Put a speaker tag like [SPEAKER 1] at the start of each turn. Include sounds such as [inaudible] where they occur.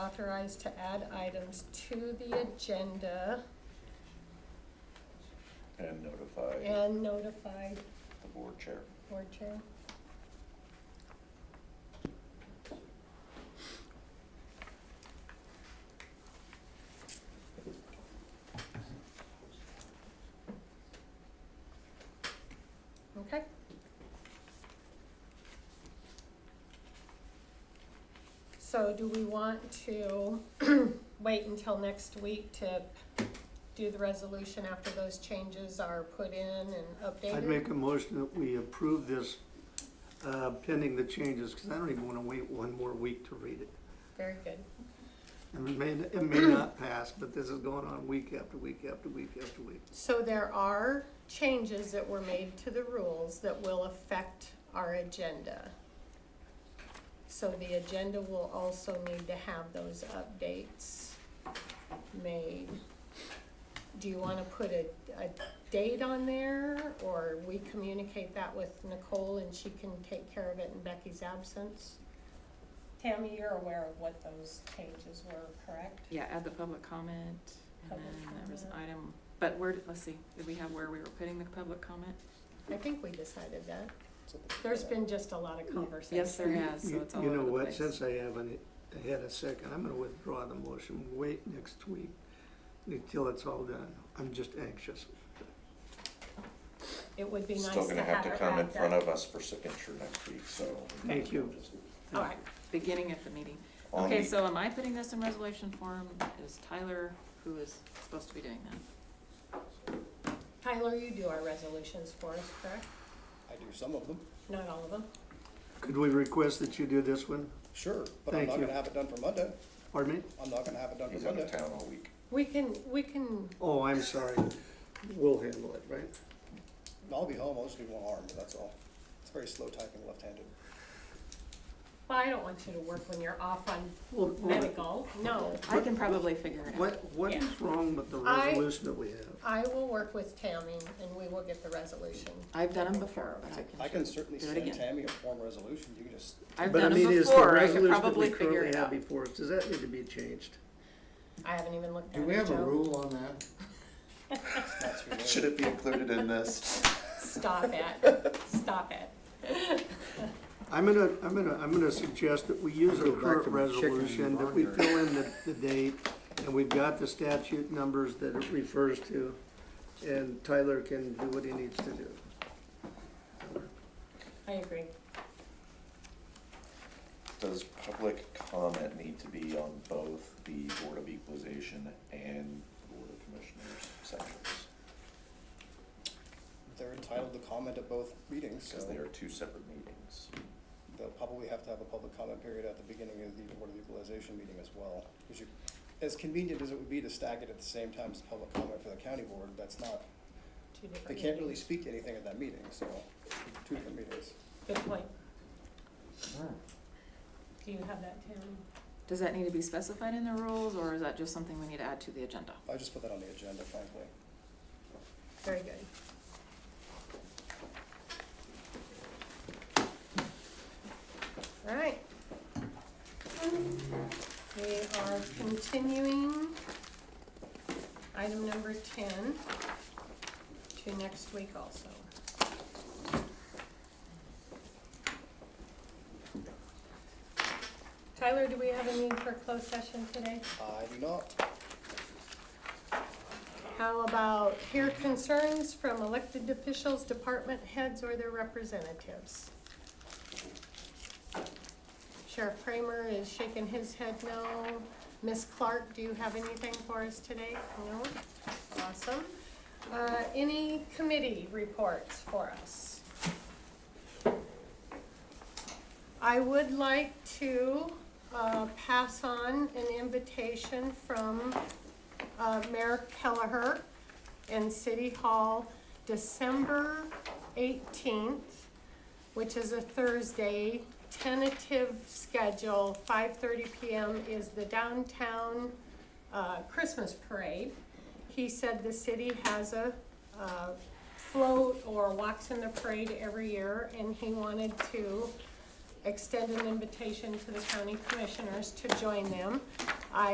[SPEAKER 1] authorized to add items to the agenda
[SPEAKER 2] and notify
[SPEAKER 1] and notify
[SPEAKER 2] the board chair.
[SPEAKER 1] board chair. Okay. So do we want to [clears throat] wait until next week to do the resolution after those changes are put in and updated?
[SPEAKER 3] I'd make a motion that we approve this uh, pending the changes, because I don't even want to wait one more week to read it.
[SPEAKER 1] Very good.
[SPEAKER 3] And it may, it
[SPEAKER 4] [clears throat]
[SPEAKER 3] may not pass, but this is going on week after week after week after week.
[SPEAKER 1] So there are changes that were made to the rules that will affect our agenda. So the agenda will also need to have those updates made. Do you wanna put a, a date on there, or we communicate that with Nicole and she can take care of it in Becky's absence? Tammy, you're aware of what those changes were, correct?
[SPEAKER 4] Yeah, add the public comment, and
[SPEAKER 1] Public
[SPEAKER 4] then there was an
[SPEAKER 1] comment.
[SPEAKER 4] item, but where, did- let's see, did we have where we were putting the public comment?
[SPEAKER 1] I think we decided that. There's been just a lot of conversation.
[SPEAKER 4] Yes, there has, so
[SPEAKER 3] You-
[SPEAKER 4] it's all over
[SPEAKER 3] You know
[SPEAKER 4] the
[SPEAKER 3] what,
[SPEAKER 4] place.
[SPEAKER 3] since I haven't had a second, I'm gonna withdraw the motion, wait next week until it's all done. I'm just anxious.
[SPEAKER 1] It would be nice to
[SPEAKER 2] Still
[SPEAKER 1] have
[SPEAKER 2] gonna have to
[SPEAKER 1] it
[SPEAKER 2] come in
[SPEAKER 1] wrapped
[SPEAKER 2] front
[SPEAKER 1] up.
[SPEAKER 2] of us for signature next week, so. we might
[SPEAKER 3] Thank
[SPEAKER 2] as well
[SPEAKER 3] you.
[SPEAKER 2] just-
[SPEAKER 1] All right,
[SPEAKER 4] Beginning at the meeting.
[SPEAKER 2] on
[SPEAKER 4] Okay,
[SPEAKER 2] the-
[SPEAKER 4] so am I putting this in resolution form? Is Tyler, who is supposed to be doing that?
[SPEAKER 1] Tyler, you do our resolutions for us, correct?
[SPEAKER 5] I do some of them,
[SPEAKER 1] Not all of them?
[SPEAKER 3] Could we request that you do this one?
[SPEAKER 5] sure, but I'm
[SPEAKER 3] Thank
[SPEAKER 5] not
[SPEAKER 3] you.
[SPEAKER 5] gonna have it done for Monday.
[SPEAKER 3] Pardon me?
[SPEAKER 5] I'm not gonna have it done
[SPEAKER 2] He's
[SPEAKER 5] for
[SPEAKER 2] out
[SPEAKER 5] Monday.
[SPEAKER 2] of town all week.
[SPEAKER 1] We can, we can,
[SPEAKER 3] Oh, I'm sorry. We'll handle it, right?
[SPEAKER 5] I'll be home, I'll just be one arm, but that's all. It's very slow typing left-handed.
[SPEAKER 1] well, I don't want you to work when you're off on
[SPEAKER 3] Well,
[SPEAKER 1] medical, no.
[SPEAKER 4] I can probably figure it out.
[SPEAKER 3] What, what is wrong with the
[SPEAKER 1] I-
[SPEAKER 3] resolution that we have?
[SPEAKER 1] I will work with Tammy and we will get the resolution.
[SPEAKER 4] I've done them before, but
[SPEAKER 5] I
[SPEAKER 4] I can,
[SPEAKER 5] can certainly
[SPEAKER 4] Do it
[SPEAKER 5] send
[SPEAKER 4] again.
[SPEAKER 5] Tammy a form resolution, you can just,
[SPEAKER 4] I've
[SPEAKER 3] But I
[SPEAKER 4] done
[SPEAKER 3] mean,
[SPEAKER 4] them
[SPEAKER 3] is the
[SPEAKER 4] before, I could
[SPEAKER 3] resolution that we
[SPEAKER 4] probably figure
[SPEAKER 3] currently
[SPEAKER 4] it
[SPEAKER 3] have
[SPEAKER 4] out.
[SPEAKER 3] before, does that need to be changed?
[SPEAKER 1] I haven't even looked at it,
[SPEAKER 6] Do we have a
[SPEAKER 1] Joe.
[SPEAKER 6] rule on that?
[SPEAKER 5] it's not too late.
[SPEAKER 2] Should it be included in this?
[SPEAKER 1] Stop it,
[SPEAKER 6] [laughs]
[SPEAKER 1] stop it.
[SPEAKER 3] I'm gonna, I'm gonna, I'm gonna suggest that we use our
[SPEAKER 6] Go back
[SPEAKER 3] current
[SPEAKER 6] to my chicken and
[SPEAKER 3] resolution, that we
[SPEAKER 6] barnyard.
[SPEAKER 3] fill in the, the date, and we've got the statute numbers that it refers to, and Tyler can do what he needs to do.
[SPEAKER 1] I agree.
[SPEAKER 2] Does public comment need to be on both the Board of Equalization and Board of Commissioners sections?
[SPEAKER 5] They're entitled to comment at both meetings, so
[SPEAKER 2] Because they are two separate meetings.
[SPEAKER 5] they'll probably have to have a public comment period at the beginning of the Board of Equalization meeting as well. Which you, as convenient as it would be to stack it at the same time as public comment for the county board, that's not,
[SPEAKER 1] Two different
[SPEAKER 5] they can't really
[SPEAKER 1] meetings.
[SPEAKER 5] speak to anything at that meeting, so, two different meetings.
[SPEAKER 1] Good point. Do you have that, Tammy?
[SPEAKER 4] Does that need to be specified in the rules, or is that just something we need to add to the agenda?
[SPEAKER 5] I just put that on the agenda, frankly.
[SPEAKER 1] Very good. All right. We are continuing item number ten to next week also. Tyler, do we have a need for closed session today?
[SPEAKER 5] I do not.
[SPEAKER 1] How about hear concerns from elected officials, department heads, or their representatives? Sheriff Kramer is shaking his head no. Ms. Clark, do you have anything for us today? No? Awesome. Uh, any committee reports for us? I would like to, uh, pass on an invitation from uh, Mayor Kelleher in City Hall, December 18th, which is a Thursday. Tentative schedule, 5:30 PM is the downtown uh, Christmas parade. He said the city has a uh, float or walks in the parade every year, and he wanted to extend an invitation to the county commissioners to join them.